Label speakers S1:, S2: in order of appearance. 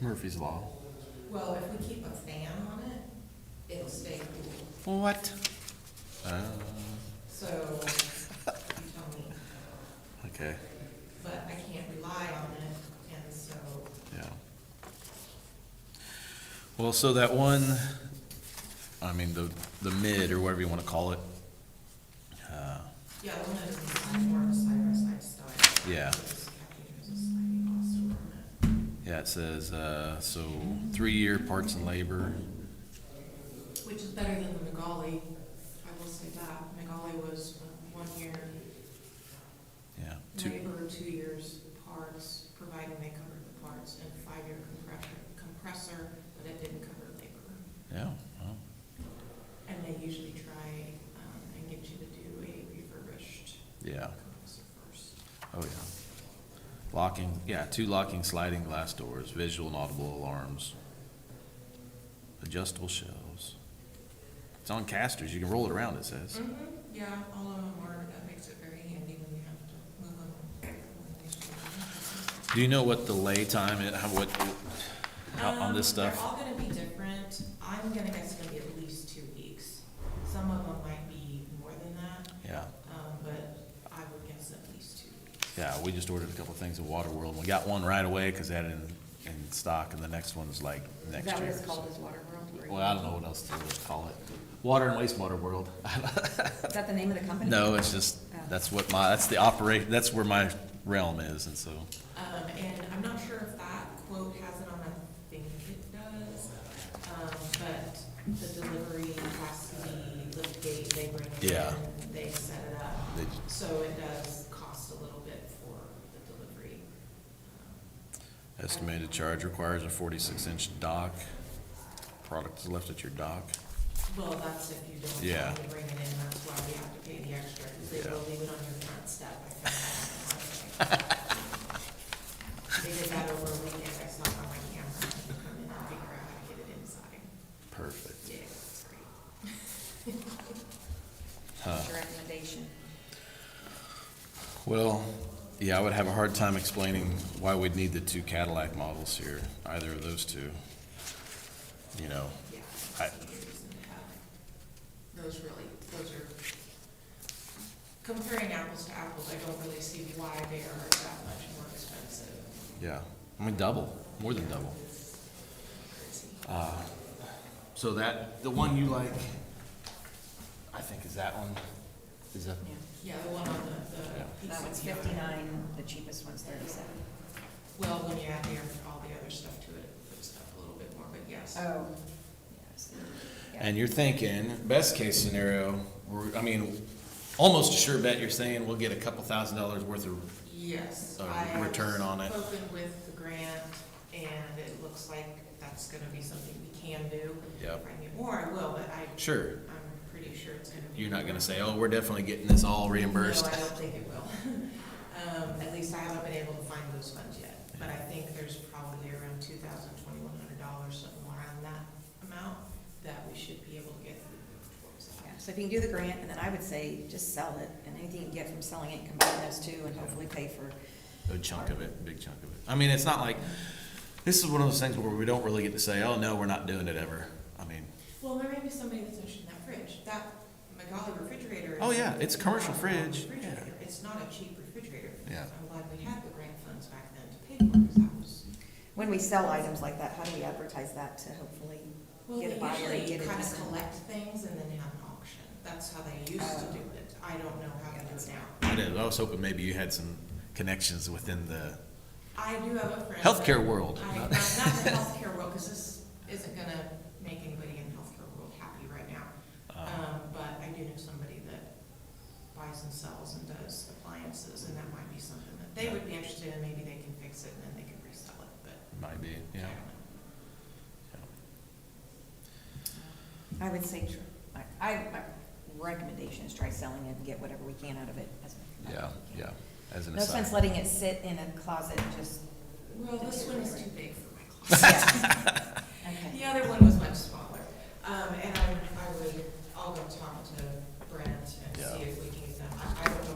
S1: Murphy's Law.
S2: Well, if we keep a fan on it, it'll stay cool.
S1: What? Uh,
S2: So, you tell me,
S1: okay,
S2: but I can't rely on it, and so,
S1: yeah. Well, so that one, I mean, the, the mid or whatever you wanna call it. uh,
S2: yeah, the one that's inside more of a side by side style.
S1: Yeah.
S2: Because Kathy has a sliding glass door on it.
S1: Yeah, it says, uh, so three-year parts and labor,
S2: Which is better than the Magali, I will say that, Magali was uh, one year,
S1: yeah. Two,
S2: labor, two years parts, providing they covered the parts, and five-year compressor, compressor, but it didn't cover labor.
S1: yeah, well,
S2: And they usually try um, and get you to do a refurbished
S1: yeah,
S2: compressor first.
S1: oh, yeah. Locking, yeah, two locking sliding glass doors, visual and audible alarms, adjustable shelves. It's on casters, you can roll it around, it says.
S2: Yeah, all of them are, that makes it very handy when you have to move them. when they should be.
S3: Mm-hmm.
S1: Do you know what the lay time, it- how, what, how- on this
S2: Um, they're
S1: stuff?
S2: all gonna be different. I'm gonna guess it's gonna be at least two weeks. Some of them might be more than that,
S1: Yeah,
S2: um, but I would guess at least two weeks.
S1: yeah, we just ordered a couple things at Waterworld, we got one right away, cause they had it in, in stock, and the next one's like
S3: Is
S1: next year.
S3: that what it's
S1: so-
S3: called, is Water World?
S1: Well, I don't know what else to call it. Water and wastewater world.
S3: Is that the name of the company?
S1: No, it's just, that's what my, that's the operate, that's where my realm is, and so,
S2: Um, and I'm not sure if that quote has it on, I think it does. Um, but the delivery has to be lift gate, they bring it
S1: Yeah.
S2: in, they set it up.
S1: they,
S2: So it does cost a little bit for the delivery.
S1: estimated charge requires a forty-six inch dock. Product is left at your dock.
S2: Well, that's if you don't
S1: Yeah.
S2: really bring it in, that's why we have to pay the extra, because they
S1: Yeah.
S2: will leave it on your front step. I found that on the website. They did that over a weekend, I saw it on my camera, and come in and figure out how to get it inside.
S1: Perfect.
S2: Yeah, it's great.
S1: Huh.
S3: Your recommendation.
S1: Well, yeah, I would have a hard time explaining why we'd need the two Cadillac models here, either of those two. You know,
S2: Yeah.
S1: I-
S2: Those really, those are, comparing apples to apples, I don't really see why they are that much more expensive.
S1: yeah, I mean, double, more than double. Uh,
S2: Crazy.
S1: So that, the one you like, I think is that one, is that?
S2: Yeah, the one on the,
S1: Yeah.
S2: the. piece
S3: That one's
S2: of the-
S3: fifty-nine, the cheapest one's thirty-seven.
S2: Well, when you add the, all the other stuff to it, it puts up a little bit more, but yes.
S3: Oh. Yes. Yeah.
S1: And you're thinking, best case scenario, we're, I mean, almost a sure bet you're saying we'll get a couple thousand dollars worth of,
S2: Yes.
S1: A
S2: I have
S1: return on it.
S2: Spoken with the grant, and it looks like that's gonna be something we can do. If
S1: Yep.
S2: I need more, I will, but I,
S1: sure,
S2: I'm pretty sure it's gonna be.
S1: you're not gonna say, oh, we're definitely getting this all reimbursed.
S2: No, I don't think it will. Um, at least I haven't been able to find those funds yet, but I think there's probably around two thousand, twenty-one hundred dollars, something around that amount, that we should be able to get towards that.
S3: Yeah, So if you can do the grant, and then I would say, just sell it, and anything you can get from selling it, combine those two, and hopefully pay for,
S1: A chunk of it, big chunk of it. I mean, it's not like, this is one of those things where we don't really get to say, oh, no, we're not doing it ever. I mean,
S2: Well, there may be somebody that's interested in that fridge, that Magali refrigerator. is-
S1: Oh, yeah, it's a commercial
S2: It's not a normal
S1: fridge,
S2: refrigerator.
S1: yeah.
S2: It's not a cheap refrigerator.
S1: Yeah.
S2: I'm glad we had the grant funds back then to pay for it, 'cause that was.
S3: when we sell items like that, how do we advertise that to hopefully?
S2: Well,
S3: Get
S2: they
S3: a buyer,
S2: usually
S3: get a
S2: kind of
S3: discount.
S2: collect things and then have an auction, that's how they used to
S3: Oh.
S2: do it, I don't know how to
S3: Yeah,
S2: do
S3: that's-
S2: it now.
S1: I did- I was hoping maybe you had some connections within the
S2: I do have a friend.
S1: healthcare world.
S2: I, not not the healthcare world, because this isn't gonna make anybody in the healthcare world happy right now.
S1: Uh,
S2: Um, but I do know somebody that buys and sells and does appliances, and that might be something that they would be interested in, maybe they can fix it and then they can resell it, but
S1: Might be,
S2: I
S1: yeah.
S2: don't know.
S3: I would say, tr- I, I, my recommendation is try selling it and get whatever we can out of it. as much as
S1: Yeah,
S3: we can.
S1: yeah, as an
S3: No
S1: aside.
S3: sense letting it sit in a closet, just,
S2: Well, this one is too big for my closet.
S3: yeah. Okay.
S2: The other one was much smaller, um, and I, I would, I'll go talk to Brent and
S1: Yeah.
S2: see if we can get that, I I don't